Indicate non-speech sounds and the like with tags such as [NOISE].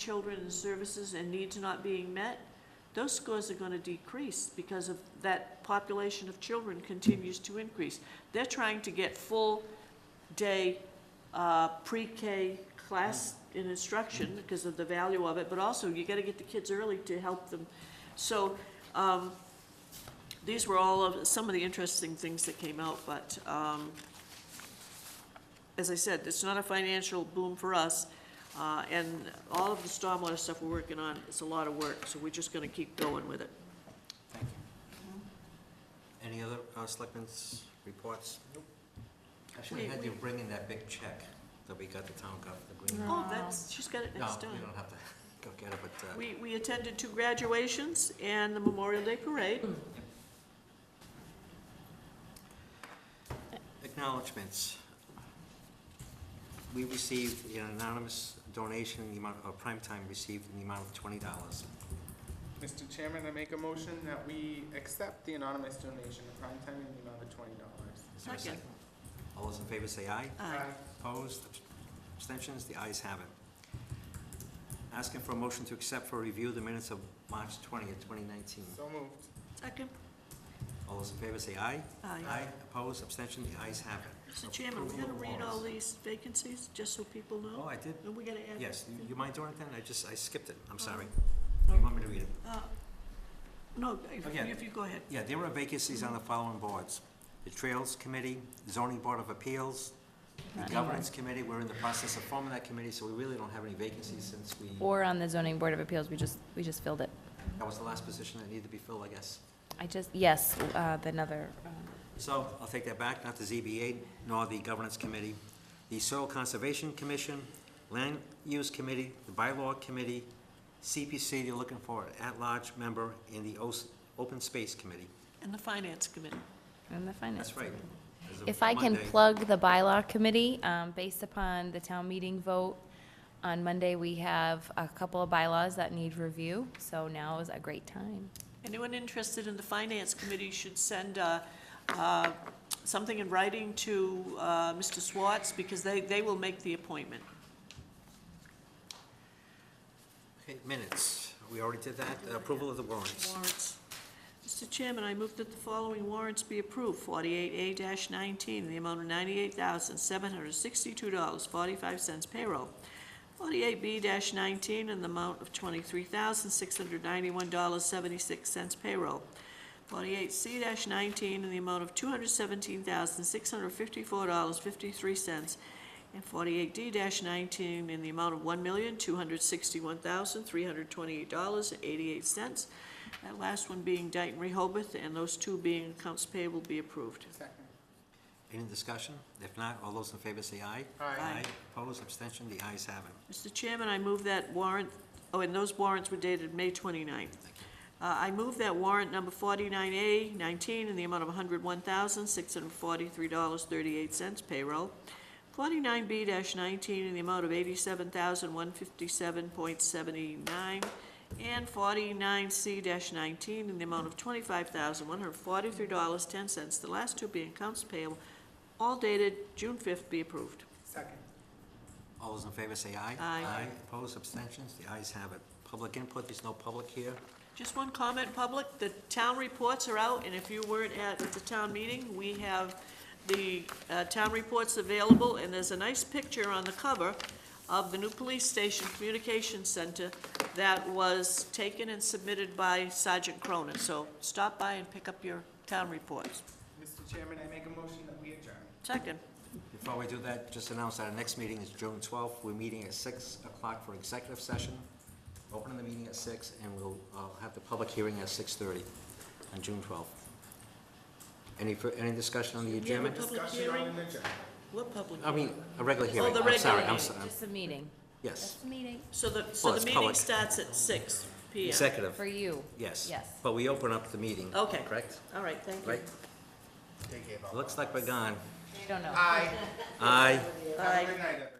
children and services and needs not being met, those scores are going to decrease because of that population of children continues to increase. They're trying to get full-day uh, pre-K class in instruction because of the value of it, but also you got to get the kids early to help them. So um, these were all of, some of the interesting things that came out, but um, as I said, it's not a financial boom for us. Uh, and all of the stormwater stuff we're working on, it's a lot of work, so we're just gonna keep going with it. Thank you. Any other uh, selectmen's reports? Nope. I should have had you bring in that big check that we got the town got for the green. Oh, that's, she's got it No, next you time. don't have to [LAUGHS] go get it, but uh, We, we attended two graduations and the Memorial Day Parade. acknowledgements. We received an anonymous donation in the amount, of Primetime received in the amount of twenty dollars. Mr. Chairman, I make a motion that we accept the anonymous donation of prime time in the amount of twenty dollars. Is there a Second. second? All those in favor say aye. Aye. Opposed, abstentions, the ayes have it. Asking for a motion to accept for review the minutes of March twentieth, twenty nineteen. So moved. Second, All those in favor say aye. Aye. opposed, abstention, the ayes have it. Mr. Chairman, we gotta read all these vacancies, just so people Oh, know, I did, and we gotta add. yes, you- you mind doing it then? I just, I skipped it, I'm sorry. No. You want me to read it? Uh, No, if Again. if you go ahead. Yeah, there are vacancies on the following boards. The Trails Committee, Zoning Board of Appeals, the Governance Committee, we're in the process of forming that committee, so we really don't have any vacancies since we, Or on the zoning board of appeals, we just, we just filled it. that was the last position that needed to be filled, I guess. I just, yes, uh, the another, um, So I'll take that back, not the ZBA nor the Governance Committee. The Soil Conservation Commission, Land Use Committee, the Bylaw Committee, CPC, they're looking for an at-large member, in the Os- Open Space Committee. And the Finance Committee. and the finance. That's right. committee. As of If I can Monday. plug the bylaw committee, um, based upon the town meeting vote, on Monday, we have a couple of bylaws that need review, so now is a great time. Anyone interested in the Finance Committee should send uh, uh, something in writing to uh, Mr. Swartz, because they, they will make the appointment. Okay, Minutes, we already did that, approval of the warrants. Warrants. Mr. Chairman, I move that the following warrants be approved. Forty-eight A nineteen, the amount of ninety-eight thousand, seven hundred sixty-two dollars, forty-five cents payroll. Forty-eight B nineteen, in the amount of twenty-three thousand, six hundred ninety-one dollars, seventy-six cents payroll. Forty-eight C nineteen, in the amount of two hundred seventeen thousand, six hundred fifty-four dollars, fifty-three cents. And forty-eight D nineteen, in the amount of one million, two hundred sixty-one thousand, three hundred twenty-eight dollars, eighty-eight cents. That last one being Dayton Rehoboth, and those two being accounts payable be approved. Second. Any discussion? If not, all those in favor say aye. Aye. Opposed, abstention, the ayes have it. Mr. Chairman, I move that warrant, oh, and those warrants were dated May 29th. Thank you. Uh, I move that warrant number 49A19 in the amount of $101,643.38 payroll. 49B-19 in the amount of $87,157.79. And 49C-19 in the amount of $25,143.10. The last two being accounts payable, all dated June 5th, be approved. Second. All those in favor say aye. Aye. Opposed, abstentions, the ayes have it. Public input, there's no public here. Just one comment, public, the town reports are out, and if you weren't at the town meeting, we have the uh, town reports available, and there's a nice picture on the cover of the new police station communication center that was taken and submitted by Sergeant Cronin, so stop by and pick up your town reports. Mr. Chairman, I make a motion that we adjourn. Second, Before we do that, just announce that our next meeting is June twelfth. We're meeting at six o'clock for executive session. Opening the meeting at six, and we'll uh, have the public hearing at six thirty on June twelfth. Any, fir- any discussion on the we have a adjournment? public Discussion on hearing? an adjournment. What public? I mean, a regular hearing. the I'm sorry, regular I'm sorry. Just a Oh, meeting. Yes. meeting. So the, so Well, the it's meeting public. starts at six P M. Executive, For you. yes. Yes. But we open up the meeting. Okay. Correct? All right, thank you. Right? Looks like we're gone. You don't know. Aye. Aye. Have a Aye. good night, everyone.